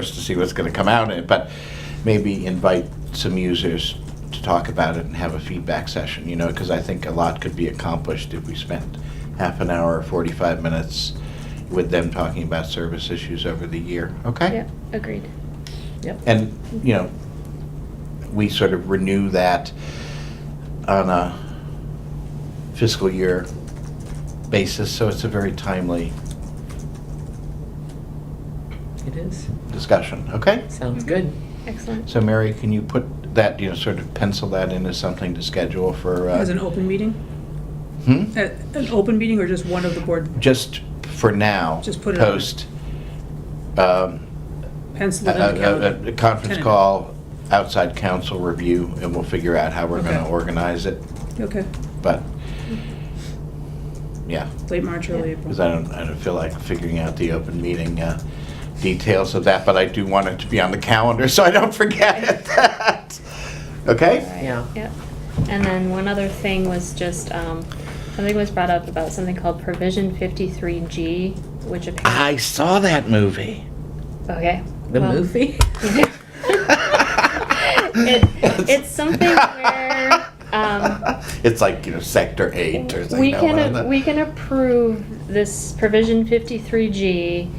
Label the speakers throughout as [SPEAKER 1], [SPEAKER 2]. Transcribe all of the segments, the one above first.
[SPEAKER 1] just to see what's going to come out of it, but maybe invite some users to talk about it and have a feedback session, you know, because I think a lot could be accomplished if we spent half an hour, or 45 minutes with them talking about service issues over the year, okay?
[SPEAKER 2] Yep, agreed. Yep.
[SPEAKER 1] And, you know, we sort of renew that on a fiscal year basis, so it's a very timely
[SPEAKER 3] It is.
[SPEAKER 1] discussion, okay?
[SPEAKER 3] Sounds good.
[SPEAKER 2] Excellent.
[SPEAKER 1] So Mary, can you put that, you know, sort of pencil that into something to schedule for, uh,
[SPEAKER 4] As an open meeting?
[SPEAKER 1] hmm?
[SPEAKER 4] Uh, An open meeting or just one of the board,
[SPEAKER 1] Just for now.
[SPEAKER 4] Just put it on.
[SPEAKER 1] Post, um,
[SPEAKER 4] pencil
[SPEAKER 1] a,
[SPEAKER 4] it in the
[SPEAKER 1] a- a,
[SPEAKER 4] calendar?
[SPEAKER 1] a conference
[SPEAKER 4] Tentative.
[SPEAKER 1] call, outside council review, and we'll figure out how we're gonna
[SPEAKER 4] Okay.
[SPEAKER 1] organize it,
[SPEAKER 4] Okay,
[SPEAKER 1] but, yeah.
[SPEAKER 4] late March, early
[SPEAKER 1] Because
[SPEAKER 4] April.
[SPEAKER 1] I don't, I don't feel like figuring out the open meeting uh, details of that, but I do want it to be on the calendar so I don't forget that. Okay?
[SPEAKER 3] Yeah.
[SPEAKER 2] Yep. And then one other thing was just, um, something was brought up about something called provision fifty-three G, which apparently.
[SPEAKER 1] I saw that movie.
[SPEAKER 2] Okay.
[SPEAKER 3] The
[SPEAKER 2] well-
[SPEAKER 3] movie?
[SPEAKER 2] It, it's something where, um,
[SPEAKER 1] It's like, you know, Sector 8 or something.
[SPEAKER 2] We
[SPEAKER 1] no, one of the-
[SPEAKER 2] can, we can approve this provision fifty-three G,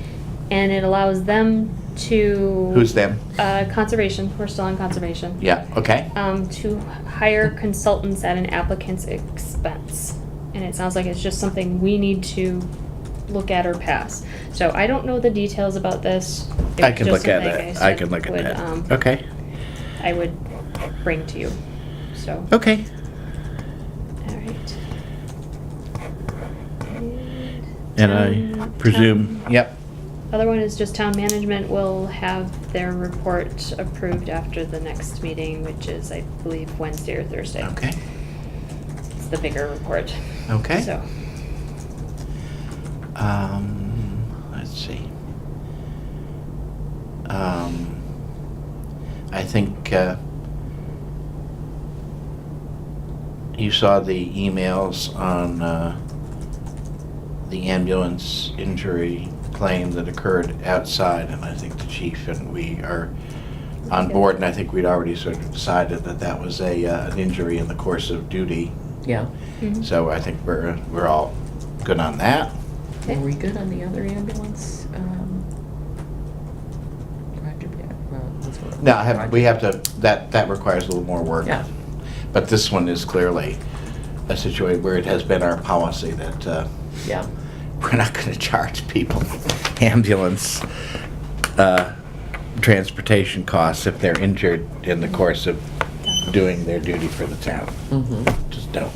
[SPEAKER 2] and it allows them to.
[SPEAKER 1] Who's them?
[SPEAKER 2] Uh, conservation, we're still on conservation.
[SPEAKER 1] Yeah, okay.
[SPEAKER 2] Um, to hire consultants at an applicant's expense. And it sounds like it's just something we need to look at or pass. So I don't know the details about this. It's
[SPEAKER 1] I can
[SPEAKER 2] just
[SPEAKER 1] look at
[SPEAKER 2] something
[SPEAKER 1] it.
[SPEAKER 2] said
[SPEAKER 1] I can look at
[SPEAKER 2] would, um,
[SPEAKER 1] that. Okay,
[SPEAKER 2] I would bring to you, so.
[SPEAKER 1] okay.
[SPEAKER 2] All right.
[SPEAKER 1] And
[SPEAKER 2] Town-
[SPEAKER 1] I
[SPEAKER 2] town-
[SPEAKER 1] presume, yep,
[SPEAKER 2] Other one is just town management will have their report approved after the next meeting, which is, I believe, Wednesday or Thursday.
[SPEAKER 1] okay,
[SPEAKER 2] It's the bigger report.
[SPEAKER 1] okay.
[SPEAKER 2] So,
[SPEAKER 1] Um, let's see. Um, I think uh, you saw the emails on uh, the ambulance injury claim that occurred outside, and I think the chief and we are on
[SPEAKER 2] Okay.
[SPEAKER 1] board, and I think we'd already sort of decided that that was a uh, an injury in the course of duty.
[SPEAKER 3] Yeah.
[SPEAKER 2] mhm.
[SPEAKER 1] So I think we're we're all good on that.
[SPEAKER 3] Were we good on the other ambulance? um, project? Yeah, well, this one-
[SPEAKER 1] No, I have, we have to, that, that requires a little more work.
[SPEAKER 3] Yeah.
[SPEAKER 1] But this one is clearly a situation where it has been our policy that uh,
[SPEAKER 3] Yeah.
[SPEAKER 1] we're not going to charge people ambulance uh, transportation costs if they're injured in the course of doing their duty for the town.
[SPEAKER 3] Mm-hmm.
[SPEAKER 1] Just don't.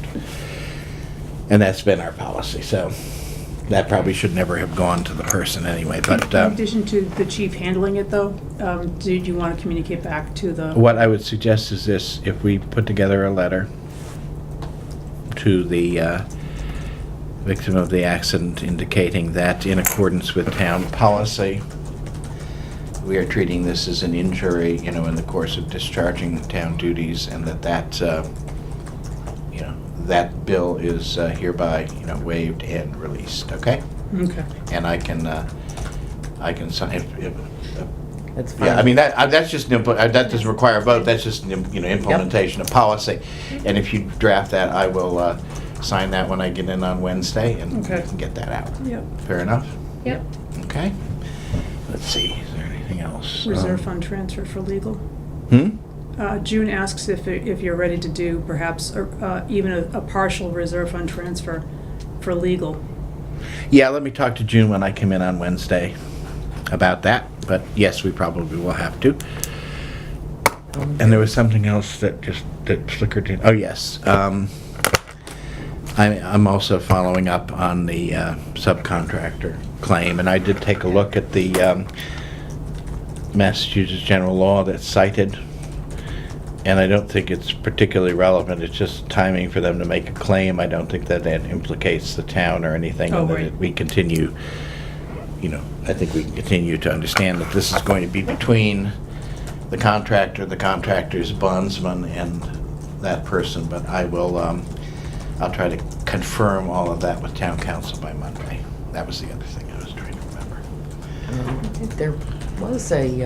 [SPEAKER 1] And that's been our policy, so that probably should never have gone to the person anyway, but.
[SPEAKER 4] In
[SPEAKER 1] um,
[SPEAKER 4] addition to the chief handling it though, um, did you want to communicate back to the,
[SPEAKER 1] What I would suggest is this, if we put together a letter to the uh, victim of the accident indicating that in accordance with town policy, we are treating this as an injury, you know, in the course of discharging town duties, and that that, uh, you know, that bill is uh, hereby, you know, waived and released, okay?
[SPEAKER 4] okay.
[SPEAKER 1] And I can, uh, I can sign, if, if, uh,
[SPEAKER 3] That's fine.
[SPEAKER 4] Um,
[SPEAKER 1] yeah, I mean, that, uh, that's just, an impl- uh, that doesn't require a vote, that's just, an im- you know, implementation of policy. And if you draft that, I will uh, sign that when I get in on Wednesday, and we
[SPEAKER 4] Okay.
[SPEAKER 1] can get that out.
[SPEAKER 4] Yep,
[SPEAKER 1] Fair enough?
[SPEAKER 2] Yep,
[SPEAKER 1] Okay? Let's see, is there anything else?
[SPEAKER 4] reserve
[SPEAKER 1] Um,
[SPEAKER 4] fund transfer for legal.
[SPEAKER 1] Hmm?
[SPEAKER 4] Uh, June asks if, if you're ready to do perhaps a- uh, even a a partial reserve fund transfer for legal.
[SPEAKER 1] Yeah, let me talk to June when I come in on Wednesday about that, but yes, we probably will have to.
[SPEAKER 3] Um,
[SPEAKER 1] And there was something else that just, that flickered in, oh, yes. um, I- I'm also following up on the uh, subcontractor claim, and I did take a look at the um, Massachusetts general law that's cited, and I don't think it's particularly relevant, it's just timing for them to make a claim. I don't think that that implicates the town or anything,
[SPEAKER 4] Oh,
[SPEAKER 1] and that
[SPEAKER 4] right.
[SPEAKER 1] it- we continue, you know, I think we can continue to understand that this is going to be between the contractor, the contractor's bondsman, and that person, but I will, um, I'll try to confirm all of that with town council by Monday. That was the other thing I was trying to remember.
[SPEAKER 3] um, There was a,